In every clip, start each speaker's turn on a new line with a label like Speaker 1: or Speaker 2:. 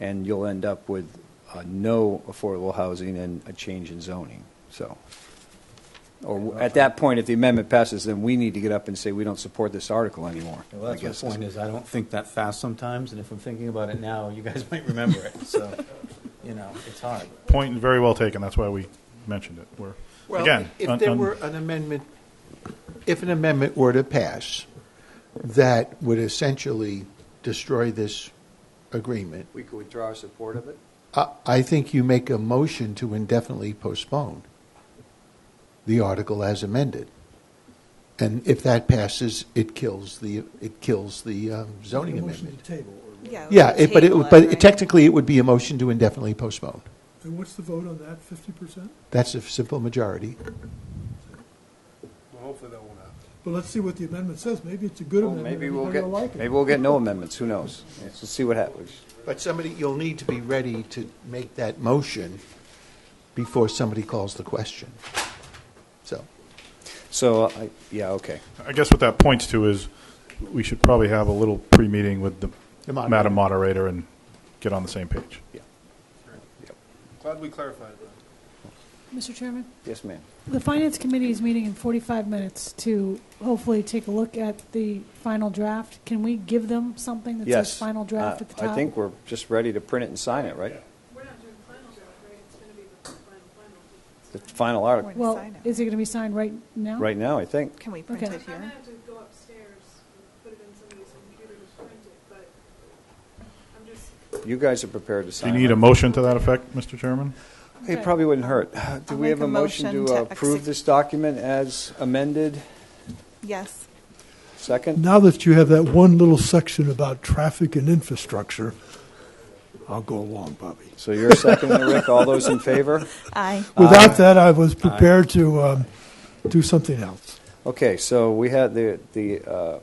Speaker 1: and you'll end up with uh, no affordable housing and a change in zoning, so. Or at that point, if the amendment passes, then we need to get up and say, we don't support this article anymore.
Speaker 2: Well,
Speaker 1: I guess
Speaker 2: that's my point, is I don't think that fast sometimes, and if I'm thinking about it now, you guys might remember it, so, you know, it's hard.
Speaker 3: Point very well taken. That's why we mentioned it. We're,
Speaker 4: Well,
Speaker 3: again,
Speaker 4: if
Speaker 3: un-
Speaker 4: there
Speaker 3: un-
Speaker 4: were an amendment, if an amendment were to pass that would essentially destroy this agreement,
Speaker 1: We could withdraw our support of it?
Speaker 4: I, I think you make a motion to indefinitely postpone the article as amended. And if that passes, it kills the, it kills the um, zoning amendment.
Speaker 5: Yeah,
Speaker 4: Yeah, it- but it,
Speaker 5: table
Speaker 4: but
Speaker 5: right?
Speaker 4: it- technically, it would be a motion to indefinitely postpone.
Speaker 6: And what's the vote on that, fifty percent?
Speaker 4: That's a simple majority.
Speaker 6: But let's see what the amendment says. Maybe it's a good amendment.
Speaker 1: Maybe we'll
Speaker 6: everybody
Speaker 1: get,
Speaker 6: will like it.
Speaker 1: maybe we'll get no amendments, who knows? Let's see what happens.
Speaker 4: But somebody, you'll need to be ready to make that motion before somebody calls the question. So,
Speaker 1: So, I- yeah, okay.
Speaker 3: I guess what that points to is we should probably have a little pre-meeting with the
Speaker 4: The moderator.
Speaker 3: Madam Moderator and get on the same page.
Speaker 7: Glad we clarified that.
Speaker 8: Mr. Chairman,
Speaker 1: Yes, ma'am.
Speaker 8: the Finance Committee is meeting in 45 minutes to hopefully take a look at the final draft. Can we give them something that
Speaker 1: Yes.
Speaker 8: says final draft
Speaker 1: Uh,
Speaker 8: at the top?
Speaker 1: I think we're just ready to print it and sign it, right?
Speaker 9: We're not doing final draft, right? It's going to be the final, final.
Speaker 1: The final article,
Speaker 5: We're-
Speaker 8: Well,
Speaker 5: Sign it.
Speaker 8: is it going to be signed right now?
Speaker 1: right now, I think.
Speaker 5: Can we print
Speaker 8: Okay.
Speaker 5: it
Speaker 9: I'm going
Speaker 5: here?
Speaker 9: to have to go upstairs and put it in somebody's computer to print it, but I'm just,
Speaker 1: You guys are prepared to
Speaker 3: Do you
Speaker 1: sign it.
Speaker 3: need a motion to that effect, Mr. Chairman?
Speaker 1: It probably wouldn't hurt. Do
Speaker 5: I'll
Speaker 1: we have
Speaker 5: make
Speaker 1: a
Speaker 5: a
Speaker 1: motion
Speaker 5: motion
Speaker 1: to
Speaker 5: to
Speaker 1: approve
Speaker 5: exec-
Speaker 1: this document as amended?
Speaker 5: Yes.
Speaker 1: Second?
Speaker 6: Now that you have that one little section about traffic and infrastructure, I'll go along, Bobby.
Speaker 1: So you're seconding, Rick. All those in favor?
Speaker 5: Aye.
Speaker 1: Uh,
Speaker 6: Without that, I was prepared to um, do something else.
Speaker 1: Okay, so we had the, the uh,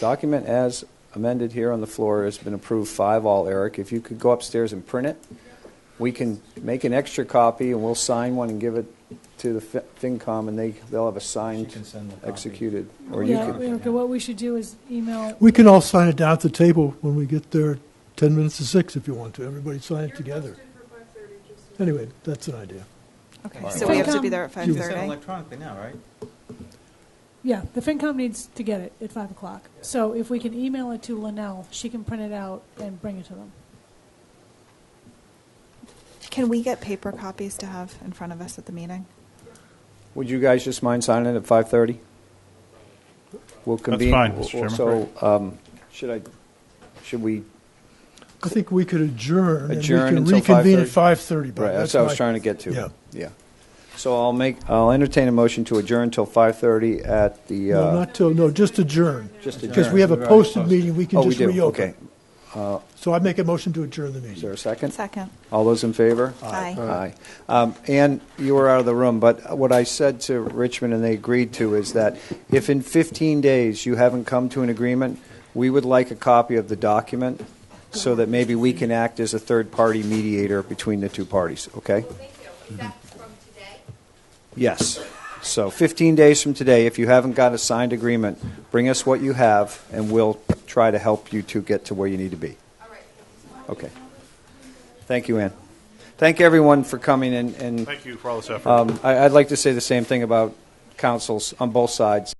Speaker 1: document as amended here on the floor has been approved five all, Eric. If you could go upstairs and print it, we can make an extra copy and we'll sign one and give it to the Fin- FinCom and they, they'll have a
Speaker 2: She
Speaker 1: signed,
Speaker 2: can send the copy.
Speaker 1: executed. Or you
Speaker 8: Yeah,
Speaker 1: could,
Speaker 8: Erica, what we should do is email,
Speaker 6: We can all sign it down at the table when we get there, ten minutes to six if you want to. Everybody sign it
Speaker 9: you're
Speaker 6: together.
Speaker 9: posted for 5:30, just. so-
Speaker 6: Anyway, that's an idea.
Speaker 5: Okay, so we have to be there at
Speaker 2: You can send
Speaker 5: 5:30.
Speaker 2: electronically now, right?
Speaker 8: yeah, the FinCom needs to get it at 5 o'clock. So if we can email it to Linnell, she can print it out and bring it to them.
Speaker 5: Can we get paper copies to have in front of us at the meeting?
Speaker 1: would you guys just mind signing at 5:30? We'll convene.
Speaker 3: fine, Mr. Chairman.
Speaker 1: So, um, should I, should we
Speaker 6: I think we could adjourn and we
Speaker 1: Adjourn
Speaker 6: can
Speaker 1: until
Speaker 6: reconvene at
Speaker 1: 5:30.
Speaker 6: five-thirty, Bob.
Speaker 1: Right, that's what I was
Speaker 6: my-
Speaker 1: trying to get to.
Speaker 6: Yeah.
Speaker 1: Yeah. So I'll make, I'll entertain a motion to adjourn till 5:30 at the,
Speaker 6: No,
Speaker 1: uh,
Speaker 6: not till, no, just adjourn.
Speaker 1: Just
Speaker 6: Because
Speaker 2: adjourn.
Speaker 6: we have a
Speaker 2: We've already
Speaker 6: posted
Speaker 2: posted.
Speaker 6: meeting, we
Speaker 1: oh,
Speaker 6: can
Speaker 1: we
Speaker 6: just
Speaker 1: do,
Speaker 6: reopen.
Speaker 1: okay.
Speaker 6: So I make a motion to adjourn the
Speaker 1: Is there
Speaker 6: meeting.
Speaker 1: a second?
Speaker 5: Second.
Speaker 1: All those in favor?
Speaker 5: Aye.
Speaker 1: Aye. Um, Ann, you were out of the room, but what I said to Richmond and they agreed to is that if in 15 days you haven't come to an agreement, we would like a copy of the document so that maybe we can act as a third-party mediator between the two parties, okay? Yes. So 15 days from today, if you haven't got a signed agreement, bring us what you have, and we'll try to help you to get to where you need to be. Okay. Thank you, Ann. Thank everyone for coming, and, um, and
Speaker 3: Thank you for all this effort.
Speaker 1: um, I- I'd like to say the same thing about councils on both sides.